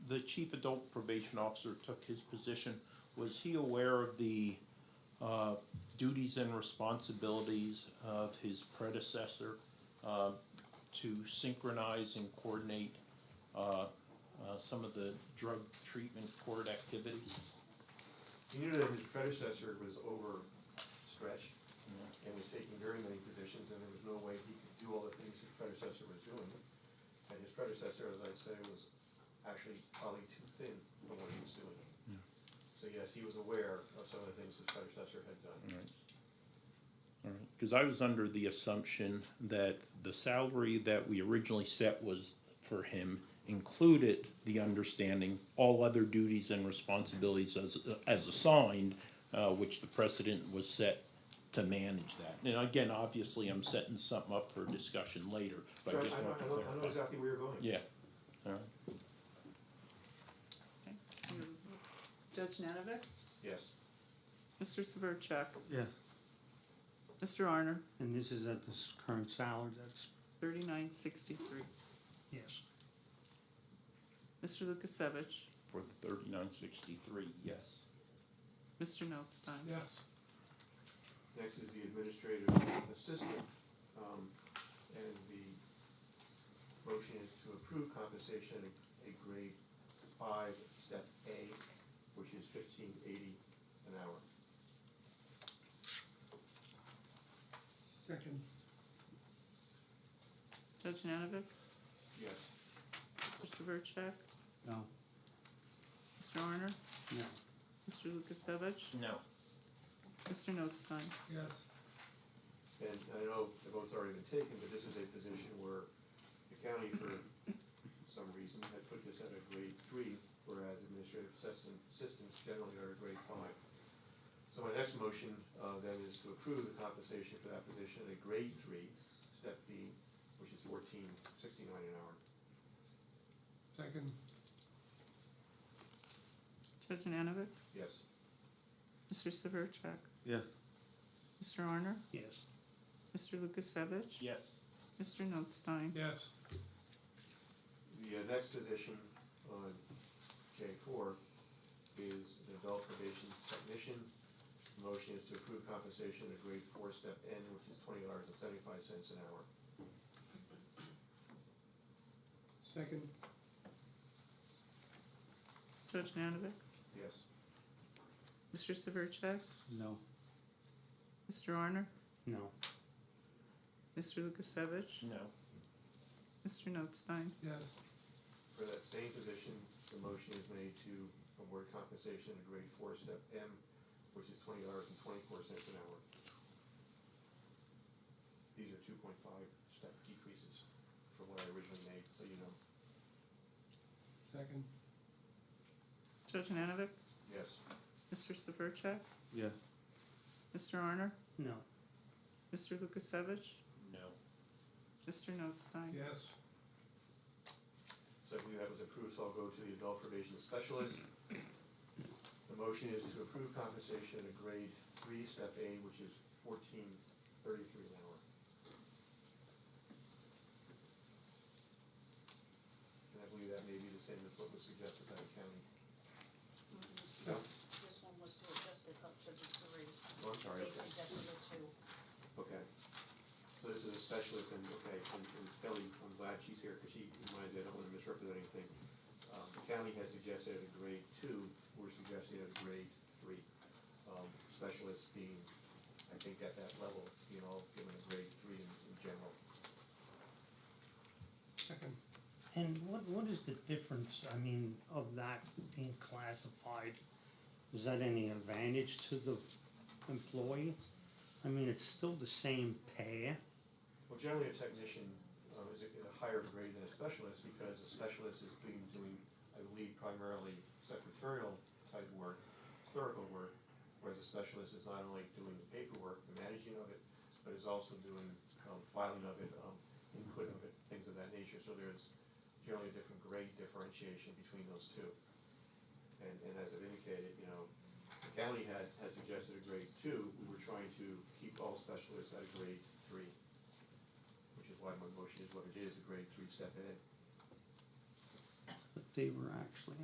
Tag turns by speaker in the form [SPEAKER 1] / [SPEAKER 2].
[SPEAKER 1] the chief adult probation officer took his position, was he aware of the uh, duties and responsibilities of his predecessor uh, to synchronize and coordinate uh, uh, some of the drug treatment court activities?
[SPEAKER 2] He knew that his predecessor was overstretched and was taking very many positions, and there was no way he could do all the things his predecessor was doing. And his predecessor, as I'd say, was actually probably too thin for what he was doing. So yes, he was aware of some of the things his predecessor had done.
[SPEAKER 1] Because I was under the assumption that the salary that we originally set was for him included the understanding all other duties and responsibilities as, as assigned, uh, which the precedent was set to manage that. And again, obviously, I'm setting something up for discussion later, but I
[SPEAKER 2] Right,
[SPEAKER 1] just
[SPEAKER 2] know-
[SPEAKER 1] want to
[SPEAKER 2] I know- I know
[SPEAKER 1] clarify.
[SPEAKER 2] exactly where you're going.
[SPEAKER 1] Yeah, Uh, all right.
[SPEAKER 3] Judge Nanovic?
[SPEAKER 2] Yes.
[SPEAKER 3] Mr. Severcek?
[SPEAKER 4] Yes,
[SPEAKER 3] Mr. Arner?
[SPEAKER 4] and this is at this current salary, that's,
[SPEAKER 3] Thirty-nine sixty-three.
[SPEAKER 4] yes.
[SPEAKER 3] Mr. Lukasevich?
[SPEAKER 1] For the thirty-nine sixty-three, yes.
[SPEAKER 3] Mr. Notstein?
[SPEAKER 2] Yes. Next is the administrative assistant, um, and the motion is to approve compensation at a grade five, step A, which is fifteen eighty an hour.
[SPEAKER 5] Second,
[SPEAKER 3] Judge Nanovic?
[SPEAKER 2] Yes.
[SPEAKER 3] Mr. Severcek?
[SPEAKER 4] No,
[SPEAKER 3] Mr. Arner?
[SPEAKER 4] no,
[SPEAKER 3] Mr. Lukasevich?
[SPEAKER 1] No.
[SPEAKER 3] Mr. Notstein?
[SPEAKER 5] yes,
[SPEAKER 2] And I know the vote's already been taken, but this is a position where the county, for some reason, had put this at a grade three, whereas administrative assistant, assistants generally are a grade five. So my next motion, uh, then is to approve the compensation for that position at a grade three, step B, which is fourteen sixty-nine an hour.
[SPEAKER 5] second,
[SPEAKER 3] Judge Nanovic?
[SPEAKER 2] Yes.
[SPEAKER 3] Mr. Severcek?
[SPEAKER 4] yes.
[SPEAKER 3] Mr. Arner?
[SPEAKER 4] Yes.
[SPEAKER 3] Mr. Lukasevich?
[SPEAKER 1] Yes.
[SPEAKER 3] Mr. Notstein?
[SPEAKER 5] yes,
[SPEAKER 2] The uh, next position on J four is an adult probation technician. Motion is to approve compensation at grade four, step N, which is twenty dollars and seventy-five cents an hour.
[SPEAKER 5] second,
[SPEAKER 3] Judge Nanovic?
[SPEAKER 2] Yes.
[SPEAKER 3] Mr. Severcek?
[SPEAKER 4] No,
[SPEAKER 3] Mr. Arner?
[SPEAKER 4] no,
[SPEAKER 3] Mr. Lukasevich?
[SPEAKER 1] No.
[SPEAKER 3] Mr. Notstein?
[SPEAKER 5] yes,
[SPEAKER 2] For that same position, the motion is made to award compensation at grade four, step M, which is twenty dollars and twenty-four cents an hour. These are two point five step decreases from what I originally made, so you know.
[SPEAKER 5] second,
[SPEAKER 3] Judge Nanovic?
[SPEAKER 2] Yes.
[SPEAKER 3] Mr. Severcek?
[SPEAKER 4] yes.
[SPEAKER 3] Mr. Arner?
[SPEAKER 4] No,
[SPEAKER 3] Mr. Lukasevich?
[SPEAKER 1] No.
[SPEAKER 3] Mr. Notstein?
[SPEAKER 5] yes,
[SPEAKER 2] So I believe that was approved, so I'll go to the adult probation specialist. The motion is to approve compensation at grade three, step A, which is fourteen thirty-three an hour. And I believe that may be the same as what was suggested by the county. No?
[SPEAKER 6] This one was to adjust it up to the three,
[SPEAKER 2] Oh, I'm sorry,
[SPEAKER 6] they
[SPEAKER 2] okay.
[SPEAKER 6] adjusted it to
[SPEAKER 2] Okay. So this is a specialist and, okay, and and Kelly, I'm glad she's here because she reminds me, I don't want to misrepresent anything. Um, The county has suggested a grade two, we're suggesting a grade three. Um, Specialists being, I think at that level, you know, given a grade three in, in general.
[SPEAKER 5] second,
[SPEAKER 4] and what, what is the difference, I mean, of that being classified? Is that any advantage to the employee? I mean, it's still the same pay,
[SPEAKER 2] Well, generally a technician um, is a is a higher grade than a specialist because a specialist is being, doing, I believe primarily secretarial type work, clerical work, whereas a specialist is not only doing the paperwork, the managing of it, but is also doing um, filing of it, um, input of it, things of that nature. So there's generally a different grade differentiation between those two. And, and as I've indicated, you know, the county had, had suggested a grade two, we were trying to keep all specialists at a grade three which is why my motion is what it is, a grade three step ahead.
[SPEAKER 4] but they were actually